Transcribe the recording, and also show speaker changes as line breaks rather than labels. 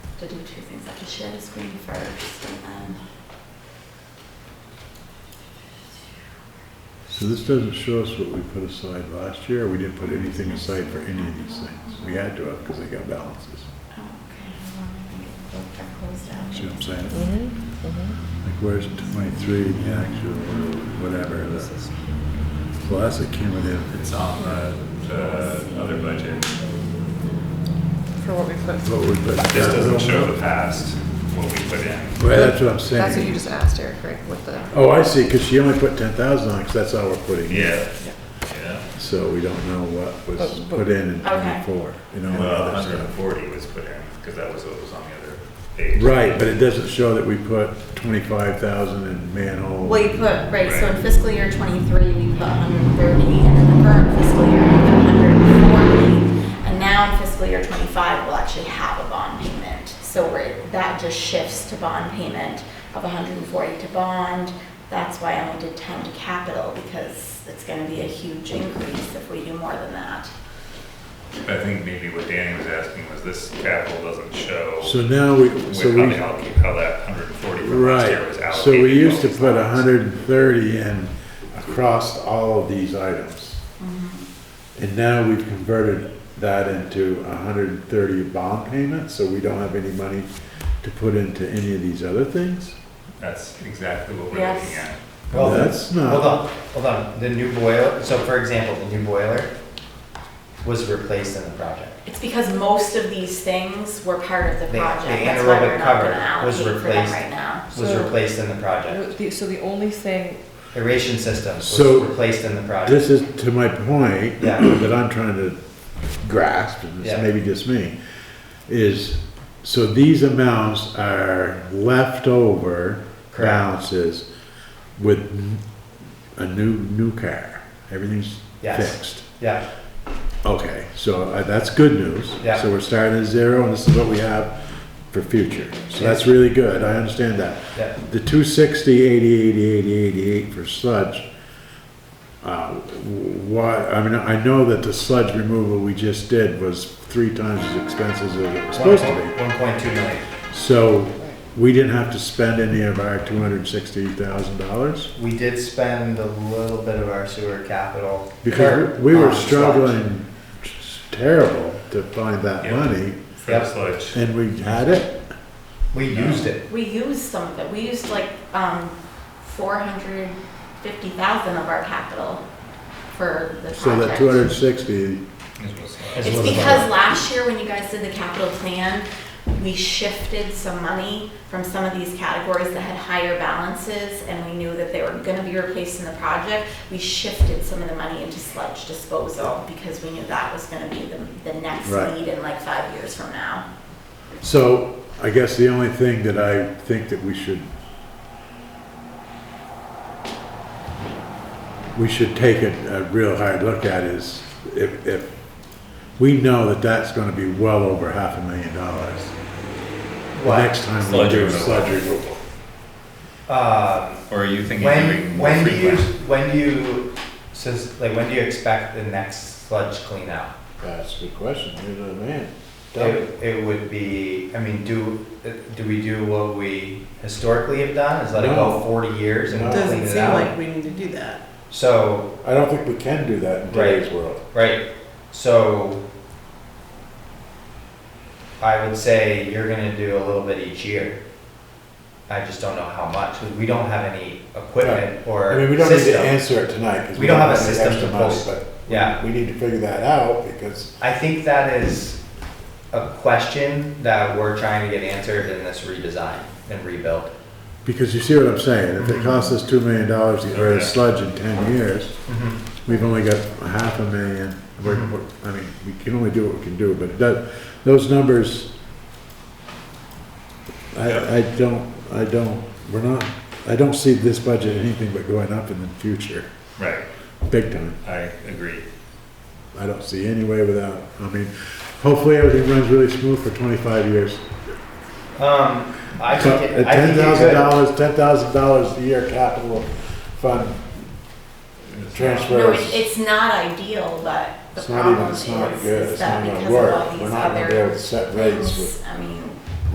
to do two things, I have to share the screen first and um, then.
So this doesn't show us what we put aside last year, we didn't put anything aside for any of these things. We had to have, because they got balances.
oh, Okay, hold on, I think it- both are closed out.
See what I'm saying?
Mm-hmm, mm-hmm.
Like where's twenty-three, the actual, or whatever, the, well, that's a cumulative.
It's on the, the other budget.
For what we put.
What we put.
This doesn't show the past, what we put in.
Well, that's what I'm saying.
That's what you just asked Eric, right, with the,
Oh, I see, because she only put ten thousand on, because that's all we're putting in.
Yeah. Yeah.
So we don't know what was
But- but-
put in in
Okay.
twenty-four, you know, and
Well,
other
hundred and
stuff.
forty was put in, because that was what was on the other page.
Right, but it doesn't show that we put twenty-five thousand in manhole.
Well, you put, right, so in fiscal year twenty-three, we put hundred and thirty, and in the current fiscal year, we put hundred and forty. And now in fiscal year twenty-five, we'll actually have a bond payment. So we're, that just shifts to bond payment of hundred and forty to bond. That's why I only did ten to capital, because it's gonna be a huge increase if we do more than that.
I think maybe what Danny was asking was this capital doesn't show
So now we,
with
so
how they
we,
allocate, how that hundred and forty from last year was
right,
allocated.
so we used to
amongst
put
lines.
hundred and thirty in across all of these items.
Mm-hmm.
And now we've converted that into hundred and thirty bond payments, so we don't have any money to put into any of these other things?
That's exactly what we're
Yes.
looking at.
Well, the-
That's not-
Hold on, hold on. The new boiler, so for example, the new boiler was replaced in the project.
It's because most of these things were part of the
The- the
project, that's why we're
anaerobic
not gonna
cover
allocate
was
for them
replaced.
right now.
Was
So-
replaced in the project.
the- so the only thing,
Aeration system was
So-
replaced in the project.
This is to my point,
Yeah.
that I'm trying to grasp, and it's
Yeah.
maybe just me, is, so these amounts are leftover
Correct.
balances with n- a new, new car, everything's
Yes.
fixed.
Yeah,
Okay, so uh, that's good news.
Yeah.
So we're starting at zero, and this is what we have for future. So that's really good, I understand that.
yeah.
The 260, 80, 80, 80, 88 for sludge, uh, why, I mean, I know that the sludge removal we just did was three times as expensive as it was supposed to
One point two million.
be. So we didn't have to spend any of our $260,000?
We did spend a little bit of our sewer capital.
Because we we were
on sludge.
struggling terrible to find that
Yeah.
money,
For
Yep.
the sludge.
and we had it?
We used it.
We used some of it. We used like um, four hundred fifty thousand of our capital for the project.
So that 260,
This was-
It's
It's
was a
because last year when you guys did the capital plan, we shifted some money from some of these categories that had higher balances and we knew that they were gonna be replaced in the project. We shifted some of the money into sludge disposal because we knew that was gonna be the, the next
Right.
need in like five years from now.
So I guess the only thing that I think that we should, we should take a, a real hard look at is if, if, we know that that's gonna be well over half a million dollars. The
What?
next time we
Sludge
do
removal.
sludge removal.
Um,
Or are you thinking maybe
when,
more
when do you,
frequent?
when do you, since, like, when do you expect the next sludge cleanout?
That's a good question, you're the man.
It, it would be, I mean, do, do we do what we historically have done, is let it
No.
go forty years and
No.
clean
Doesn't
it
seem like
out?
we need to do that.
So,
I don't think we can do that in
Right.
today's world.
right, so I would say you're gonna do a little bit each year. I just don't know how much, 'cause we don't have any equipment or
I mean, we don't need to
system.
answer it tonight, because
We don't have
any
a system
extra
to
money,
post.
but
Yeah.
we need to figure that out, because,
I think that is a question that we're trying to get answered in this redesign and rebuild.
because you see what I'm saying, if it costs us two million dollars to get rid of
Okay.
sludge in ten years, We've only got a half a million, we're,
Mm-hmm.
we're- I mean, we can only do what we can do, but that, those numbers, I, I don't, I don't, we're not, I don't see this budget anything but going up in the future,
Right,
big time.
I agree.
I don't see any way without, I mean, hopefully everything runs really smooth for twenty-five years.
Um, I
So,
think it,
At
I
ten
think it
thousand
could.
dollars, ten thousand dollars a year capital fund
It's
transfers.
No, it- it's not ideal, but the
It's not even,
problem
it's
is
not good,
is
it's
that
not gonna
because of all
work,
these
we're not gonna be able to
other
set rates with
things, I mean,